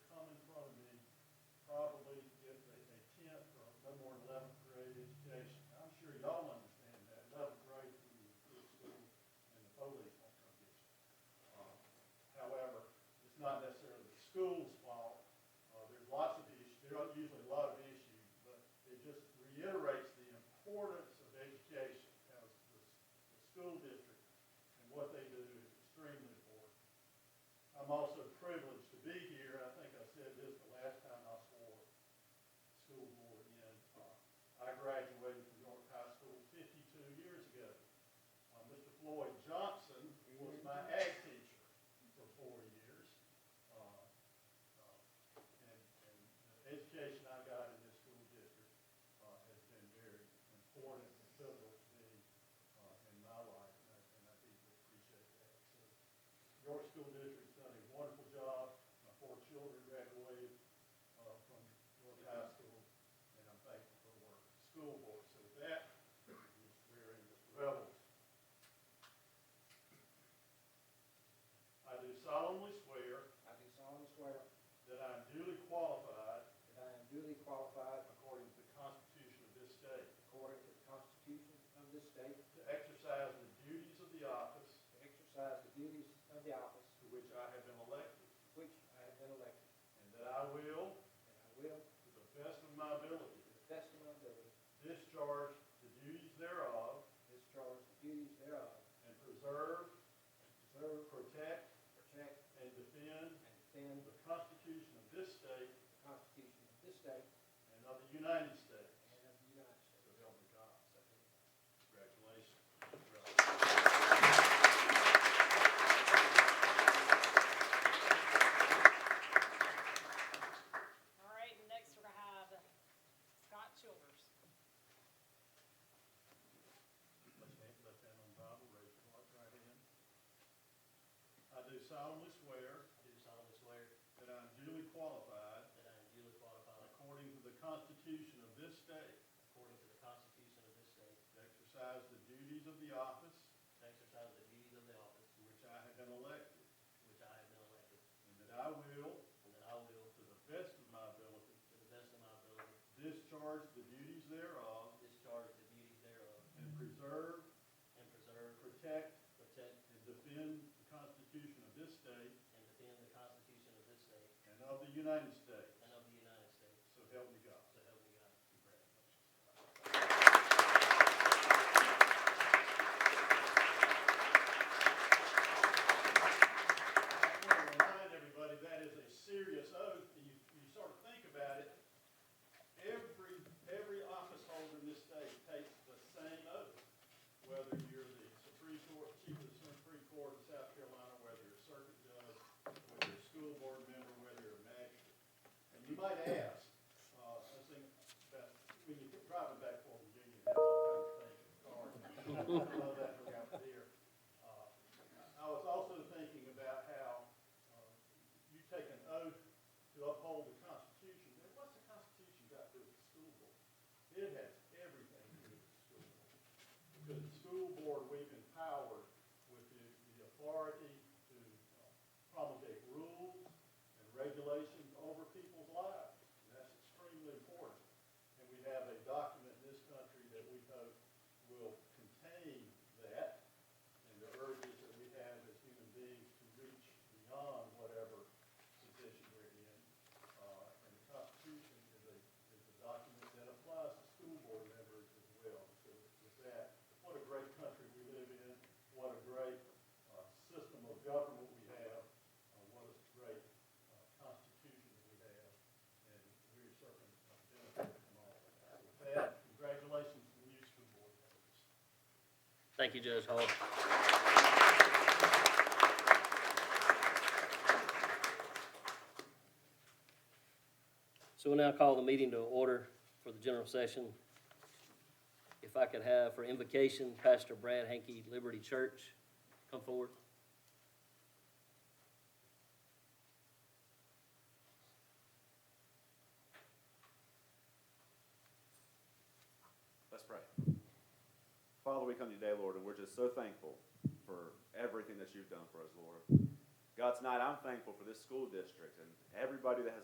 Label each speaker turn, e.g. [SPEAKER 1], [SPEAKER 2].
[SPEAKER 1] Uh, Uh, Uh, Lloyd Uh, Johnson was my ag teacher for four years. Uh, uh, And, and the education I got in this school district, uh, has been very important and pivotal to me, uh, in my life, and I, and I deeply appreciate that. So, York School District's done a wonderful job. My four children graduated, uh, from York High School, and I'm thankful for the work of the school board. So with that, we're in the rebels. I do solemnly swear
[SPEAKER 2] I do solemnly swear
[SPEAKER 1] that I am duly qualified
[SPEAKER 2] that I am duly qualified
[SPEAKER 1] according to the Constitution of this state
[SPEAKER 2] according to the Constitution of this state
[SPEAKER 1] to exercise the duties of the office
[SPEAKER 2] to exercise the duties of the office
[SPEAKER 1] to which I have been elected,
[SPEAKER 2] to which I have been elected,
[SPEAKER 1] and that I will,
[SPEAKER 2] and I will,
[SPEAKER 1] to the best of my ability,
[SPEAKER 2] to the best of my ability,
[SPEAKER 1] discharge the duties thereof
[SPEAKER 2] discharge the duties thereof,
[SPEAKER 1] and preserve,
[SPEAKER 2] preserve,
[SPEAKER 1] protect,
[SPEAKER 2] protect,
[SPEAKER 1] and defend
[SPEAKER 2] and defend
[SPEAKER 1] the Constitution of this state
[SPEAKER 2] the Constitution of this state
[SPEAKER 1] and of the United States.
[SPEAKER 2] and of the United States.
[SPEAKER 1] So help me God.
[SPEAKER 2] So help me God.
[SPEAKER 1] Congratulations.
[SPEAKER 3] All right, and next we're gonna have Scott Childers.
[SPEAKER 1] Left hand, left hand on the Bible, raise your right- right hand. I do solemnly swear
[SPEAKER 4] Do solemnly swear
[SPEAKER 1] that I am duly qualified
[SPEAKER 4] that I am duly qualified
[SPEAKER 1] according to the Constitution of this state
[SPEAKER 4] according to the Constitution of this state
[SPEAKER 1] to exercise the duties of the office
[SPEAKER 4] to exercise the duties of the office
[SPEAKER 1] to which I have been elected,
[SPEAKER 4] to which I have been elected,
[SPEAKER 1] and that I will,
[SPEAKER 4] and that I will,
[SPEAKER 1] to the best of my ability,
[SPEAKER 4] to the best of my ability,
[SPEAKER 1] discharge the duties thereof
[SPEAKER 4] discharge the duties thereof,
[SPEAKER 1] and preserve,
[SPEAKER 4] and preserve,
[SPEAKER 1] protect,
[SPEAKER 4] protect,
[SPEAKER 1] and defend the Constitution of this state
[SPEAKER 4] and defend the Constitution of this state
[SPEAKER 1] and of the United States.
[SPEAKER 4] and of the United States.
[SPEAKER 1] So help me God.
[SPEAKER 4] So help me God.
[SPEAKER 1] I want to remind everybody, that is a serious oath, and you, you sort of think about it. Every, every office holder in this state takes the same oath, whether you're the Supreme Court, Chief of the Supreme Court in South Carolina, whether you're a circuit judge, whether you're a school board member, whether you're a magistrate. And you might ask, uh, I think, that, when you get driving back from Virginia, that's all kinds of things, cars. I love that around here. Uh, I I was also thinking about how uh, you take an oath to uphold the Constitution. And what's the Constitution got to do with the school board? It has everything to do with the school board. Because the school board, we've empowered with the, the authority to uh, promulgate rules and regulations over people's lives. And that's extremely important. And we have a document in this country that we hope will contain that and the urges that we have as human beings to reach beyond whatever position we're in. Uh, and the Constitution is a, is a document that applies to school board members as well. So with that, what a great country we live in, what a great, uh, system of government we have, uh, what a great, uh, constitution we have, and we're certainly benefiting from all of that. With that, congratulations to the new school board members.
[SPEAKER 5] Thank you, Judge Hall. So we'll now call the meeting to order for the general session. If I could have for invocation Pastor Brad Hankey, Liberty Church, come forward.
[SPEAKER 6] Let's pray. Father, we come to you today, Lord, and we're just so thankful for everything that you've done for us, Lord. God, tonight I'm thankful for this school district and everybody that has